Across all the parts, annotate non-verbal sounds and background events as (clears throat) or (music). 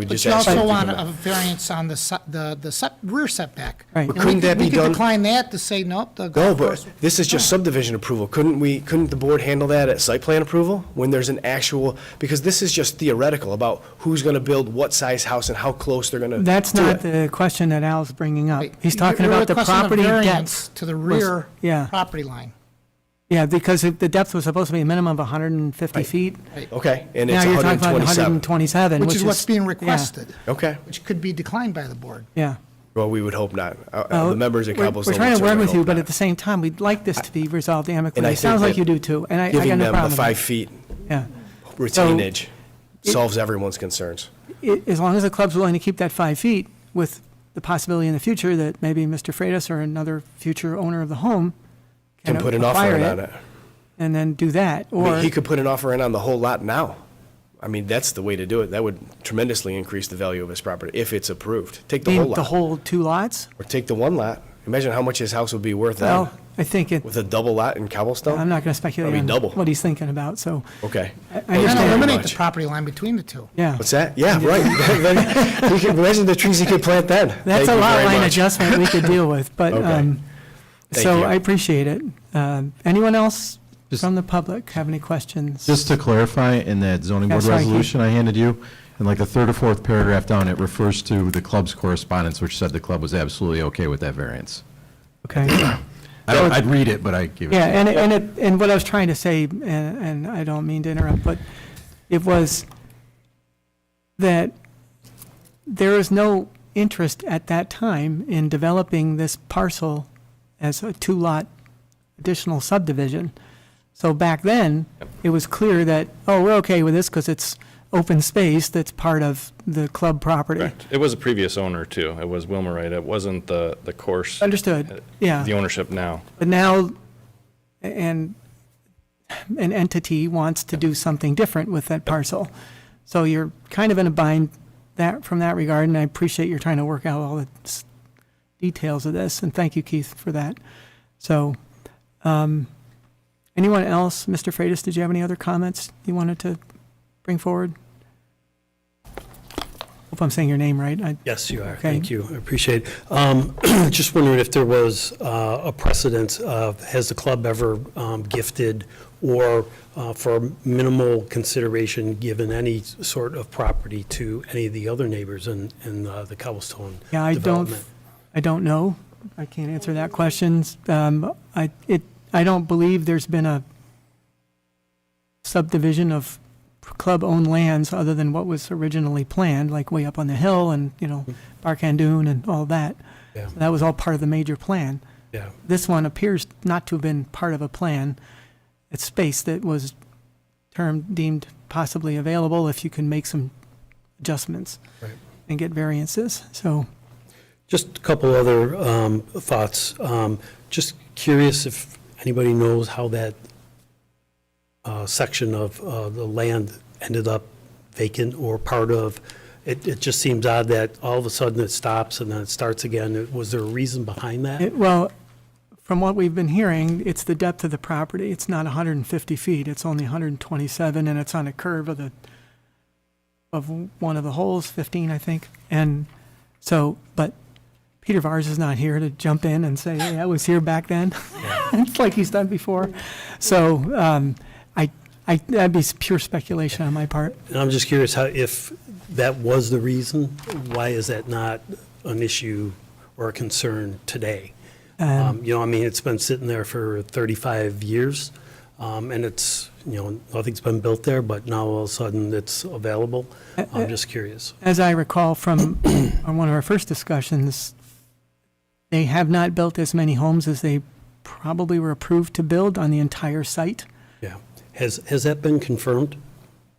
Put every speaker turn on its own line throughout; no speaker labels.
We
But
just
you
asked you
also
to
want
come
a
back.
variance on the, se- the, the se- rear setback.
Right.
And we
Couldn't that
we
be
could
done-
Decline that to say, nope, the
No,
golf
but
course.
this is
Oh.
just subdivision approval. Couldn't we, couldn't the board handle that at site plan approval? When there's an actual, because this is just theoretical about who's gonna build what size house and how close they're gonna
That's
do
not
it.
the question that Al's bringing up. He's
You're-
talking
you're
about the
requesting a
property
variance
depth.
To the rear
Yeah.
property line.
Yeah, because if the depth was supposed to be a minimum of 150 feet.
Okay, and
Now
it's
you're talking about
127.
127, which
Which
is.
is what's being
yeah,
requested,
Okay,
which could be declined by the board.
Yeah.
well, we would hope not. Uh, uh,
Well,
The members at
Oh, we're-
Cobblestone.
We're trying
would
to work
certainly
with you,
hope
but
not.
at the same time, we'd like this to be resolved
And I
amicably. It
think
sounds like
that
you do too, and I, I got
Giving
no
them
problem
the
with that.
five feet
Yeah.
retainage solves everyone's concerns.
I- As long as the club's willing to keep that five feet with the possibility in the future that maybe Mr. Freitas or another future owner of the home
Can put an offer
acquire
in on it.
And then do that,
I mean,
or,
He could put an offer in on the whole lot now. I mean, that's the way to do it. That would tremendously increase the value of his property if it's approved. Take the whole
the
lot,
whole two lots?
or take the one lot. Imagine how much his house would be worth then,
Well, I think it,
with a double lot in Cobblestone?
I'm not going to speculate
That'd be
on
double.
what he's thinking about, so,
Okay.
I
And
understand.
eliminate the
Much.
property line between the two.
yeah.
What's that? Yeah, right. (laughs) Then he could- Imagine the trees he could plant then.
That's
Thank
a
you
lot
very
line
much.
adjustment we could deal with,
(laughs)
but,
Okay.
um,
Thank
so
you.
I appreciate it. Um, Anyone else
Just-
from the public have any questions?
Just to clarify, in that zoning board
Yeah, sorry, Keith.
resolution I handed you, in like the third or fourth paragraph down, it refers to the club's correspondence, which said the club was absolutely okay with that variance.
Okay.
I don't, I'd read it, but I gave it.
Yeah, and, it- and it, and what I was trying to say, and, and I don't mean to interrupt, but it was that there is no interest at that time in developing this parcel as a two-lot additional subdivision. So back then, it was clear that, oh, we're okay with this because it's open space that's part of the club property.
Correct. It was a previous owner, too. It was Wilmerite. It wasn't the, the course,
Understood, yeah.
Uh, the ownership now.
But now, and an entity wants to do something different with that parcel. So you're kind of in a bind that, from that regard, and I appreciate you're trying to work out all the s- details of this, and thank you, Keith, for that. So, um, anyone else? Mr. Freitas, did you have any other comments you wanted to bring forward? Hope I'm saying your name right. I-
Yes, you are.
Okay.
Thank you. I appreciate it. Um, (clears throat) Just wondering if there was uh, a precedent of, has the club ever um, gifted or uh, for minimal consideration, given any sort of property to any of the other neighbors in, in uh, the Cobblestone
Yeah, I don't,
development?
I don't know. I can't answer that question. Um, I, it, I don't believe there's been a subdivision of club-owned lands other than what was originally planned, like way up on the hill and, you know, Barkandoon and all that.
Yeah.
That was all part of the major plan.
Yeah,
This one appears not to have been part of a plan. It's space that was termed, deemed possibly available if you can make some adjustments
right.
and get variances, so.
Just a couple other um, thoughts. Um, Just curious if anybody knows how that uh, section of uh, the land ended up vacant or part of. It it just seems odd that all of a sudden it stops and then it starts again. Was there a reason behind that?
It- Well, from what we've been hearing, it's the depth of the property. It's not 150 feet, it's only 127, and it's on a curve of the, of one of the holes, 15, I think. And so, but Peter Vars is not here to jump in and say, hey, I was here back then. (laughs) It's like he's done before. So um, I, I, that'd be pure speculation on my part.
And I'm just curious how, if that was the reason, why is that not an issue or a concern today? Um, You know, I mean, it's been sitting there for 35 years, um, and it's, you know, nothing's been built there, but now all of a sudden it's available. I'm just curious.
As I recall from on one of our first discussions, they have not built as many homes as they probably were approved to build on the entire site.
Yeah. Has, has that been confirmed?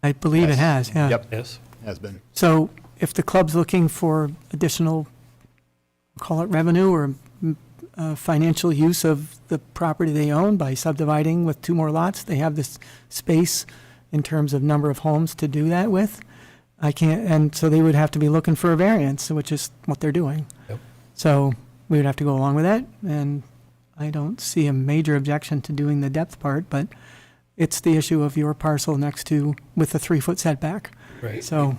I believe it has, yeah.
Yes?
Has been.
So if the club's looking for additional, call it revenue or mm, uh, financial use of the property they own by subdividing with two more lots, they have this space in terms of number of homes to do that with. I can't, and so they would have to be looking for a variance, which is what they're doing.
Yep.
So we would have to go along with that, and I don't see a major objection to doing the depth part, but it's the issue of your parcel next to, with the three-foot setback.
Right.
So,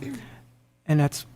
and that's